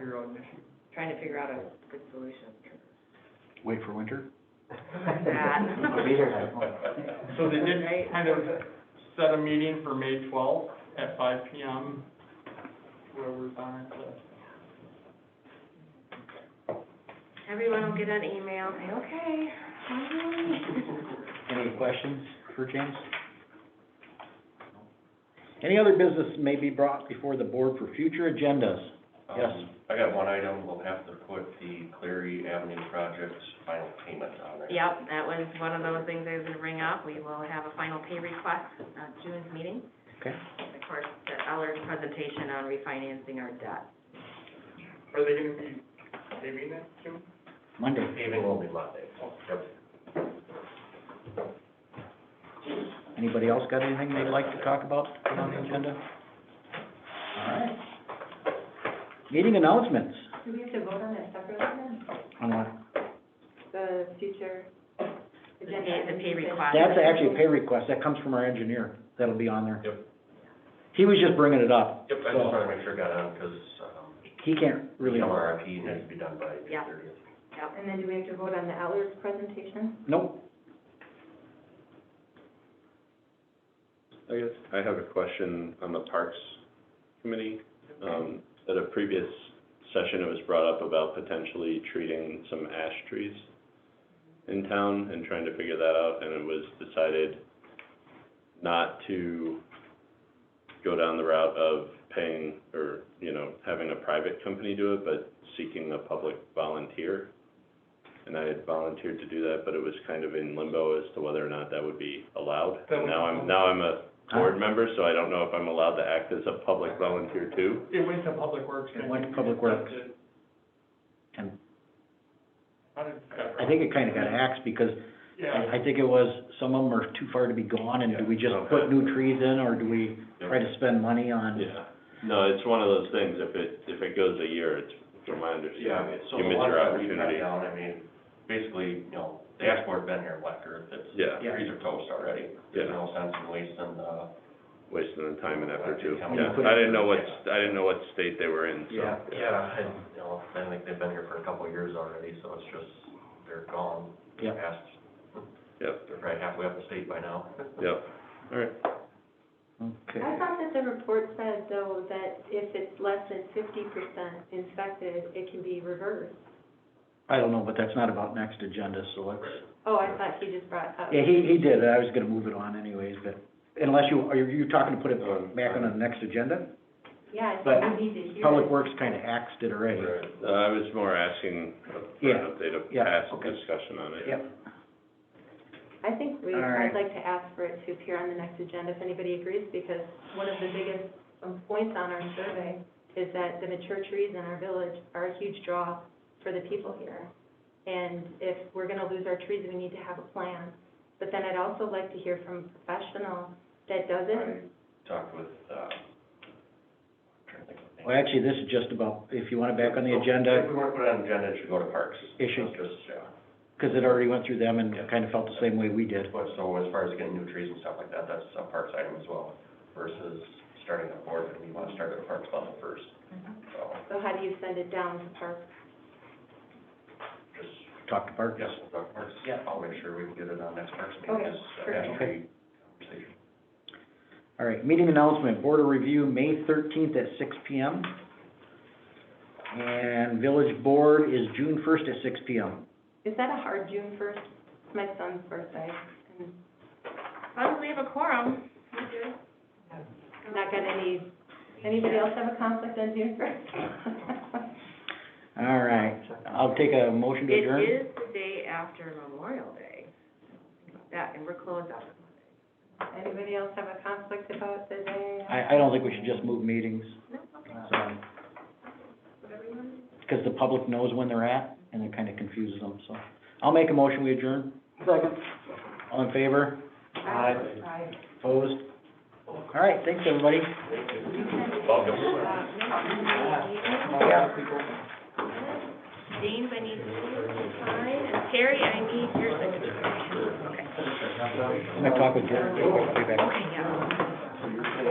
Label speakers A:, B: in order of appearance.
A: your own issue.
B: trying to figure out a good solution.
C: Wait for winter?
B: That.
A: So they did
B: Right.
A: kind of set a meeting for May twelfth at five P M, whoever's on it, uh, to-
B: Everyone will get an email, say, okay, finally.
C: Any questions for James? Any other business may be brought before the board for future agendas? Yes.
D: Um, I got one item, we'll have to put the Cleary Avenue project's final payment on there.
B: Yep, that was one of those things I was gonna bring up. We will have a final pay request at June's meeting.
C: Okay.
B: And Of course, the Eller's presentation on refinancing our debt.
A: are they gonna be saving that soon?
C: Monday.
D: Paving will be Monday. Yep.
C: Anybody else got anything they'd like to talk about on the agenda? All right. Meeting announcements.
E: Do we have to vote on that separately then?
C: On what?
E: The future
B: The
E: agenda?
B: pay, the pay request.
C: That's actually a pay request, that comes from our engineer, that'll be on there.
D: Yep.
C: He was just bringing it up,
D: Yep, I just wanted to make sure I got on, because, um,
C: he can't really,
D: MRFP needs to be done by June
B: Yeah.
D: thirtieth.
E: And then do we have to vote on the Outlook presentation?
C: nope,
F: I guess I have a question on the Parks Committee. Um, at a previous session, it was brought up about potentially treating some ash trees in town and trying to figure that out, and it was decided not to go down the route of paying or, you know, having a private company do it, but seeking a public volunteer. And I had volunteered to do that, but it was kind of in limbo as to whether or not that would be allowed.
A: That
F: And
A: would-
F: now I'm, now I'm a board member, so I don't know if I'm allowed to act as a public volunteer too.
A: It went to Public Works.
C: It
A: I
C: went to
A: think.
C: Public Works.
A: That's it.
C: And-
A: How did that-
C: I think it kinda got axed, because
A: Yeah,
C: I, I think it was, some of them are too far to be gone, and do we just
F: Yeah, okay.
C: put new trees in, or do we try to spend money on?
F: Yeah, no, it's one of those things, if it, if it goes a year, it's, from my
D: Yeah,
F: understanding,
D: so
F: you
D: the
F: miss
D: ones
F: your
D: that we cut
F: opportunity.
D: down, I mean, basically, you know, the ashboard been here black earth, it's,
F: Yeah,
C: Yeah.
D: trees are toast already. There's no sense in wasting uh, the,
F: wasting the time and effort
D: Right,
F: too.
D: how
C: many
F: Yeah,
C: put
F: I
C: in?
F: didn't know what, s- I didn't know what state they were in, so.
C: Yeah.
D: yeah, and, you know, I think they've been here for a couple of years already, so it's just, they're gone.
C: Yeah.
D: Past,
F: Yep,
D: they're probably halfway up the state by now.
F: yep, all right.
C: Okay,
E: I thought that the report said though that if it's less than fifty percent inspected, it can be reversed.
C: I don't know, but that's not about next agenda, so let's,
E: Oh, I thought he just brought up.
C: yeah, he, he did, I was gonna move it on anyways, but, unless you, are you talking to put it
F: Um,
C: back on the next agenda?
E: Yeah, I
C: But
E: think we need to hear it.
C: Public Works kinda axed it already.
F: Uh, I was more asking for
C: Yeah,
F: an update of
C: yeah,
F: past
C: okay.
F: discussion on it.
C: Yep,
E: I think we,
C: All right.
E: I'd like to ask for it to appear on the next agenda if anybody agrees, because one of the biggest um, points on our survey is that the mature trees in our village are a huge draw for the people here. And if we're gonna lose our trees, we need to have a plan. But then I'd also like to hear from a professional that does it.
D: I talked with, uh, I'm trying to think of the name.
C: well, actually, this is just about, if you want it back on the agenda,
D: If we weren't put it on the agenda, it should go to Parks.
C: It should.
D: It's Just, yeah.
C: because it already went through them and
D: Yeah.
C: kind of felt the same way we did.
D: But so as far as getting new trees and stuff like that, that's a Parks item as well versus starting at board, and we want to start at a Parks level first.
E: Mm-hmm.
D: So
E: So how do you send it down to Parks?
D: just,
C: Talk to Parks.
D: yes, we'll talk Parks.
C: Yeah.
D: I'll make sure we can get it on next Parks meeting.
E: Okay,
D: Just a
E: perfect.
D: tree conversation.
C: All right, meeting announcement, Board of Review, May thirteenth at six P M. And Village Board is June first at six P M.
E: Is that a hard June first? It's my son's birthday, and
B: Probably have a quorum.
E: not got any, anybody else have a conflict on June first?
C: All right, I'll take a motion to adjourn.
B: It is the day after Memorial Day. That, and we're closed up.
E: Anybody else have a conflict about the day?
C: I, I don't think we should just move meetings,
B: No, okay.
C: so. Because the public knows when they're at, and it kind of confuses them, so. I'll make a motion, we adjourn. Second. All in favor?
E: Aye.
C: Opposed? All right, thanks, everybody.
B: James, I need you to sign, and Terry, I need your signature. Okay.
C: I'm gonna talk with Jared, I'll be back.
B: Okay, yeah.